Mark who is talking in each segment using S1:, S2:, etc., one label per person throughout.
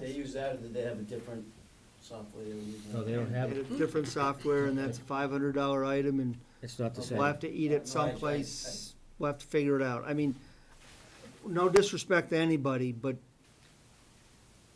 S1: They use that, or did they have a different software they were using?
S2: No, they don't have,
S3: And
S2: it.
S3: it's different software, and that's a five hundred dollar item, and
S2: it's not the same.
S3: we'll have to eat it someplace, we'll have to figure it out. I mean, no disrespect to anybody, but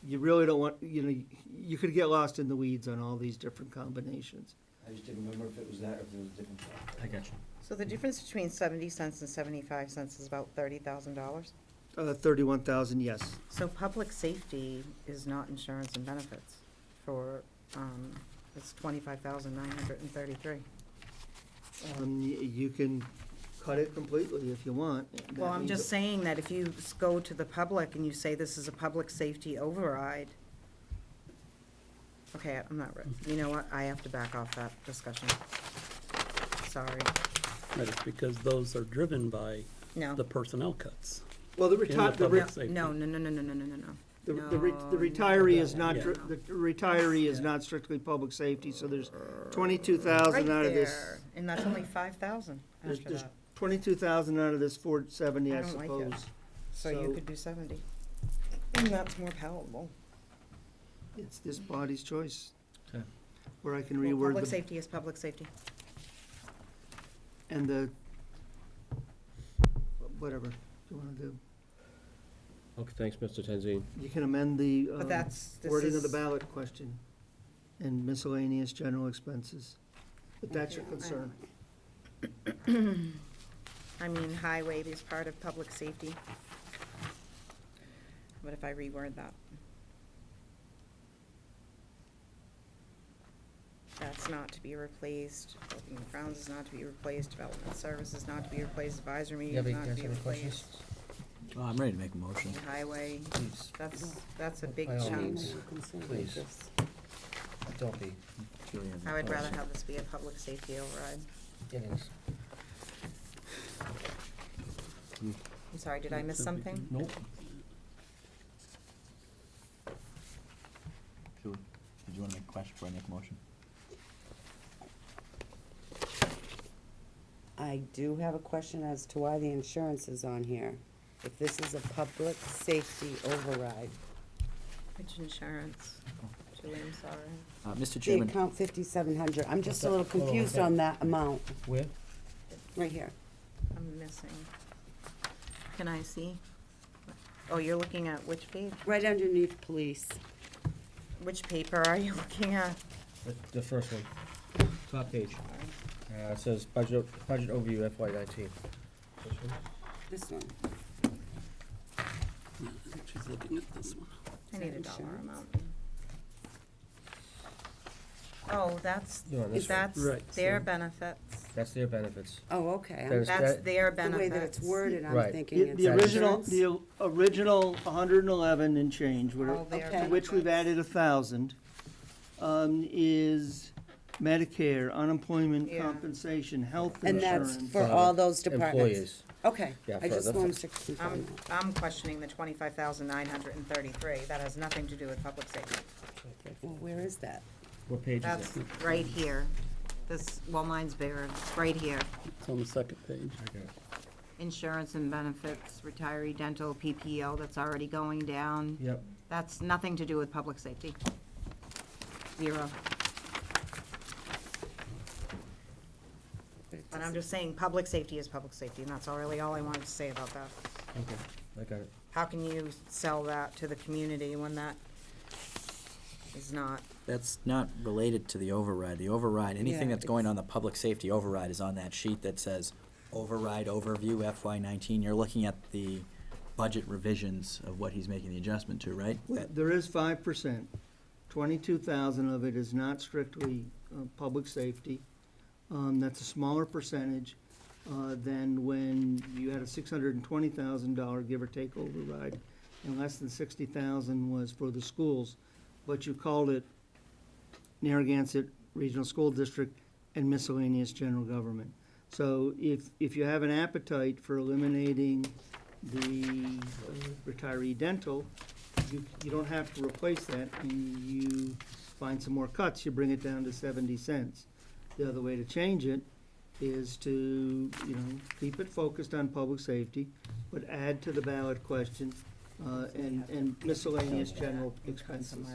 S3: you really don't want, you know, you could get lost in the weeds on all these different combinations.
S1: I just didn't remember if it was that or if it was a different software.
S2: I got you.
S4: So the difference between seventy cents and seventy-five cents is about thirty thousand dollars?
S3: Uh, thirty-one thousand, yes.
S4: So public safety is not insurance and benefits for, um, it's twenty-five thousand nine hundred and thirty-three.
S3: Um, y- you can cut it completely if you want.
S4: Well, I'm just saying that if you s- go to the public and you say this is a public safety override, okay, I'm not, re- you know what, I have to back off that discussion. Sorry,
S5: Right, it's because those are driven by
S4: no.
S5: the personnel cuts.
S3: Well, the
S5: in the
S3: reti- the re-
S5: public
S4: No,
S5: safety.
S4: No, no, no, no, no, no, no, no, no.
S3: The, the re-
S4: No,
S3: the retiree is
S4: no,
S3: not,
S4: no,
S3: dr-
S4: no.
S3: the retiree is not strictly public safety, so there's twenty-two thousand out of this.
S4: And that's only five thousand
S3: There's,
S4: after
S3: there's
S4: that,
S3: twenty-two thousand out of this four seventy,
S4: I
S3: I
S4: don't like
S3: suppose.
S4: it. so you
S3: so-
S4: could do seventy. And that's more palatable.
S3: It's this body's choice.
S2: Okay.
S3: Where I can
S4: Well,
S3: reword
S4: Public
S3: the,
S4: safety is public safety.
S3: and the, whatever you wanna do.
S6: Okay, thanks, Mr. Tenzine.
S3: You can amend the,
S4: But
S3: um,
S4: that's, this
S3: wording of the
S4: is,
S3: ballot question and miscellaneous general expenses. But that's your
S4: Okay, I-
S3: concern.
S4: I mean, highway is part of public safety. What if I reword that? That's not to be replaced, open grounds is not to be replaced, development services not to be replaced, advisory
S2: You have
S4: meetings
S2: any
S4: not to be
S2: other questions?
S4: replaced.
S7: Well, I'm ready to make a motion.
S4: and Highway,
S2: Please,
S4: that's, that's a big
S2: By all
S4: chunk.
S2: means. Please. don't be
S7: Julie has a
S4: I would rather
S7: question.
S4: have this be a public safety override.
S2: getting,
S4: I'm sorry, did I miss
S5: Something.
S4: something?
S7: Nope. Julie, did you want to make a question before I make a motion?
S8: I do have a question as to why the insurance is on here. If this is a public safety override,
S4: Which insurance? Julie, I'm sorry.
S7: Uh, Mr.
S8: the
S7: Chairman,
S8: account fifty-seven hundred, I'm just a little
S2: What's that? Oh,
S8: confused
S2: okay.
S8: on that amount,
S2: where?
S8: right here.
S4: I'm missing. Can I see? Oh, you're looking at which page?
S8: Right underneath police,
S4: Which paper are you looking at?
S2: The, the first one, top page. Uh, it says budget, budget overview FY nineteen.
S8: this one.
S7: I think she's looking at this one.
S4: I
S8: Is
S4: need
S8: that
S4: a dollar
S8: insurance?
S4: amount. Oh, that's,
S2: You're on this one.
S4: that's
S5: Right,
S4: their
S5: so-
S4: benefits.
S2: That's their benefits.
S8: Oh, okay, I'm-
S2: There's-
S4: That's
S2: that-
S4: their
S8: the way
S4: benefits.
S8: that it's worded, I'm
S2: Right.
S8: thinking
S3: The,
S8: it's.
S3: the original,
S8: insurance.
S3: the original hundred and eleven and change, whatever,
S4: All their
S8: Okay.
S3: which we've
S4: benefits.
S3: added a thousand, um, is Medicare, unemployment
S4: Yeah.
S3: compensation, health
S8: And that's
S3: insurance.
S8: for all those departments?
S2: Employees.
S8: Okay,
S2: Yeah,
S8: I
S2: for
S8: just
S2: the-
S8: wanted to confirm
S4: I'm,
S8: that.
S4: I'm questioning the twenty-five thousand nine hundred and thirty-three. That has nothing to do with public safety.
S8: Well, where is that?
S2: What page is
S4: That's
S2: it?
S4: right here. This, well, mine's bigger. It's right here.
S5: It's on the second page.
S4: Insurance and benefits, retiree dental, PPO, that's already going down.
S2: Yep,
S4: That's nothing to do with public safety. Zero.
S8: But
S4: And
S8: it
S4: I'm
S8: doesn't-
S4: just saying, public safety is public safety, and that's all really all I wanted to say about that.
S2: okay, I got it.
S4: How can you sell that to the community when that is not?
S7: That's not related to the override. The override, anything
S8: Yeah,
S7: that's going
S8: it's-
S7: on the public safety override is on that sheet that says override overview FY nineteen. You're looking at the budget revisions of what he's making the adjustment to, right? That-
S3: There is five percent. Twenty-two thousand of it is not strictly uh, public safety. Um, That's a smaller percentage uh, than when you had a six hundred and twenty thousand dollar give or take override, and less than sixty thousand was for the schools. But you called it Narragansett Regional School District and miscellaneous general government. So if, if you have an appetite for eliminating the uh, retiree dental, you, you don't have to replace that, and you find some more cuts, you bring it down to seventy cents. The other way to change it is to, you know, keep it focused on public safety, but add to the ballot question uh, and and miscellaneous general
S4: Income
S3: expenses.
S4: somewhere